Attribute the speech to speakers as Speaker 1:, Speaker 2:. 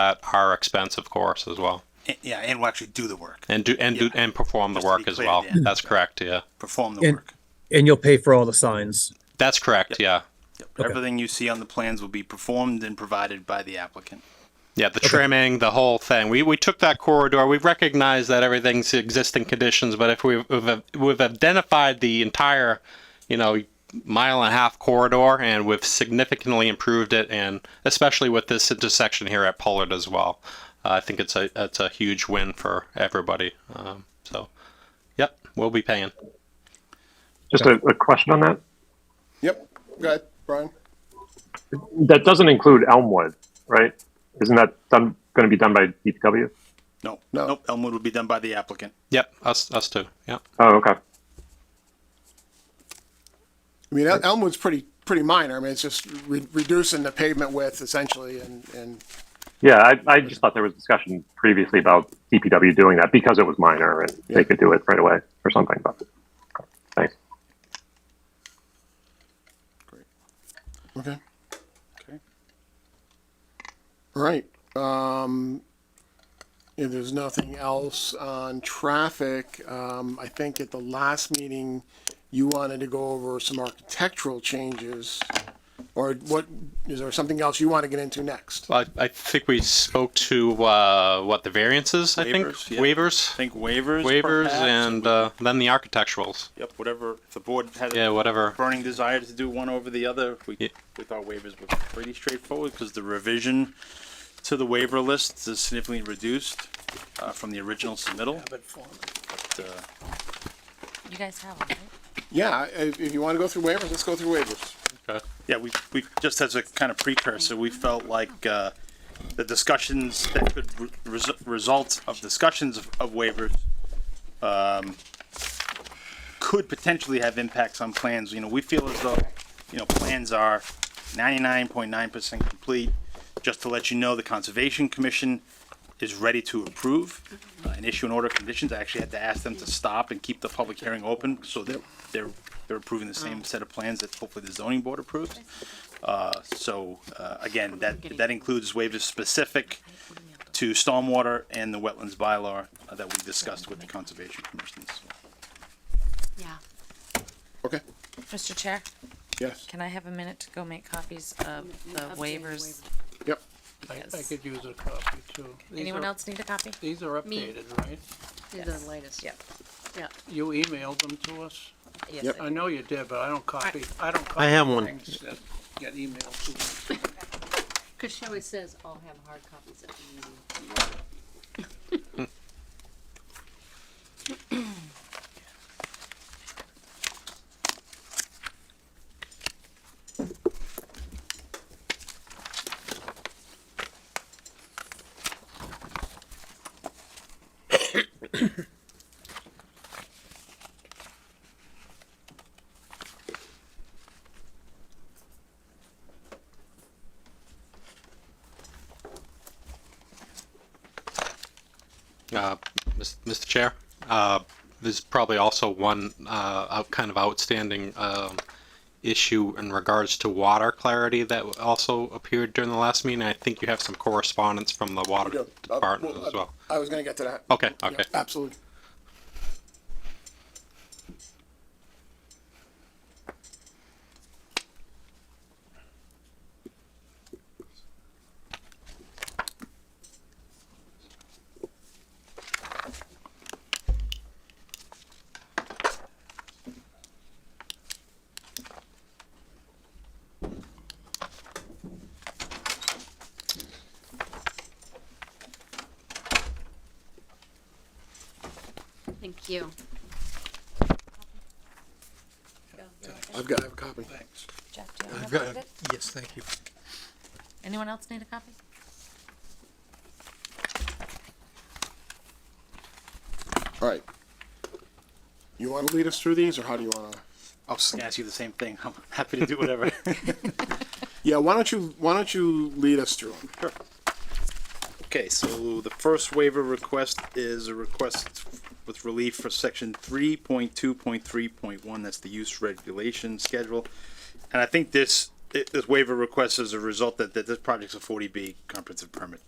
Speaker 1: at our expense, of course, as well,
Speaker 2: And- Yeah, and will actually do the work,
Speaker 1: and do and do
Speaker 2: Yeah.
Speaker 1: and perform the
Speaker 2: Just to be
Speaker 1: work as
Speaker 2: clear,
Speaker 1: well.
Speaker 2: yeah.
Speaker 1: That's correct. Yeah,
Speaker 2: perform the
Speaker 3: And-
Speaker 2: work.
Speaker 3: And you'll pay for all the signs.
Speaker 1: that's correct. Yeah,
Speaker 2: Yep. Everything you see on the plans will be performed and provided by the applicant.
Speaker 1: yeah. The trimming, the whole thing. We we took that corridor. We recognize that everything's existing conditions, but if we've we've, we've identified the entire, you know. Mile and a half corridor, and we've significantly improved it, and especially with this intersection here at Pollard as well. Uh, I think it's a it's a huge win for everybody. Um, so, yep, we'll be paying.
Speaker 4: Just a, a question on that.
Speaker 5: Yep. Go ahead, Brian.
Speaker 4: That doesn't include Elmwood, right? Isn't that done, going to be done by DPW?
Speaker 2: No,
Speaker 5: No.
Speaker 2: nope. Elmwood will be done by the applicant.
Speaker 1: Yep, us us too. Yep.
Speaker 4: Oh, okay.
Speaker 5: I mean, El- Elmwood's pretty, pretty minor. I mean, it's just re- reducing the pavement width essentially and, and,
Speaker 4: Yeah, I, I just thought there was discussion previously about DPW doing that because it was minor and
Speaker 5: Yeah.
Speaker 4: they could do it right away or something. But thanks.
Speaker 5: okay.
Speaker 2: Okay.
Speaker 5: All right. Um, if there's nothing else on traffic, um, I think at the last meeting, you wanted to go over some architectural changes. Or what, is there something else you want to get into next?
Speaker 1: I, I think we spoke to uh, what the variances. I
Speaker 2: Waivers,
Speaker 1: think
Speaker 2: yeah. I
Speaker 1: waivers,
Speaker 2: think waivers,
Speaker 1: waivers,
Speaker 2: perhaps,
Speaker 1: and
Speaker 2: we-
Speaker 1: uh, then the architecturals.
Speaker 2: yep, whatever. If the board had
Speaker 1: Yeah,
Speaker 2: a
Speaker 1: whatever.
Speaker 2: burning desire to do one over the other, we
Speaker 1: Yeah.
Speaker 2: we thought waivers were pretty straightforward because the revision to the waiver list is significantly reduced uh, from the original submittal. But, uh,
Speaker 6: You guys have them, right?
Speaker 5: Yeah, if, if you want to go through waivers, let's go through waivers.
Speaker 1: Okay.
Speaker 2: Yeah, we, we, just as a kind of precursor, we felt like, uh, the discussions that could re- res- result of discussions of of waivers, um, could potentially have impacts on plans, you know, we feel as though, you know, plans are ninety-nine point nine percent complete. Just to let you know, the Conservation Commission is ready to approve uh, and issue an order of conditions. I actually had to ask them to stop and keep the public hearing open, so that they're, they're approving the same set of plans that hopefully the zoning board approves. Uh, so, uh, again, that, that includes waivers specific to stormwater and the wetlands bylaw uh, that we discussed with the Conservation Commission. So,
Speaker 6: Yeah.
Speaker 5: Okay,
Speaker 6: Mr. Chair,
Speaker 5: yes,
Speaker 6: can I have a minute to go make copies of the waivers?
Speaker 5: yep.
Speaker 7: I, I
Speaker 6: Yes.
Speaker 7: could use a copy too. These
Speaker 6: Anyone
Speaker 7: are-
Speaker 6: else need a copy?
Speaker 7: These are
Speaker 8: Me.
Speaker 7: updated, right?
Speaker 8: These are the latest.
Speaker 6: Yep.
Speaker 7: You emailed them to us?
Speaker 6: Yes,
Speaker 5: Yep.
Speaker 6: I
Speaker 7: I know you did, but I don't copy, I don't copy.
Speaker 9: have one.
Speaker 7: Things that get emailed to me.
Speaker 8: Because she always says, I'll have hard copies at the meeting.
Speaker 1: Uh, Mis- Mr. Chair, uh, there's probably also one uh, out- kind of outstanding um, issue in regards to water clarity that also appeared during the last meeting. I think you have some correspondence from the water
Speaker 5: Yeah, uh,
Speaker 1: department
Speaker 5: well,
Speaker 1: as well. Oh,
Speaker 5: I was gonna get to that.
Speaker 1: Okay,
Speaker 5: Yeah,
Speaker 1: okay.
Speaker 5: Absolutely.
Speaker 8: Thank you.
Speaker 5: I've got, I have a copy.
Speaker 7: Thanks.
Speaker 6: Jeff, do you have a copy?
Speaker 9: Yes, thank you.
Speaker 6: Anyone else need a copy?
Speaker 5: All right. You wanna lead us through these, or how do you wanna?
Speaker 2: I was gonna ask you the same thing. I'm happy to do whatever.
Speaker 5: Yeah, why don't you, why don't you lead us through them?
Speaker 2: Okay, so the first waiver request is a request with relief for section three point two point three point one, that's the use regulation schedule. And I think this, this waiver request is a result that, that this project's a forty B comprehensive permit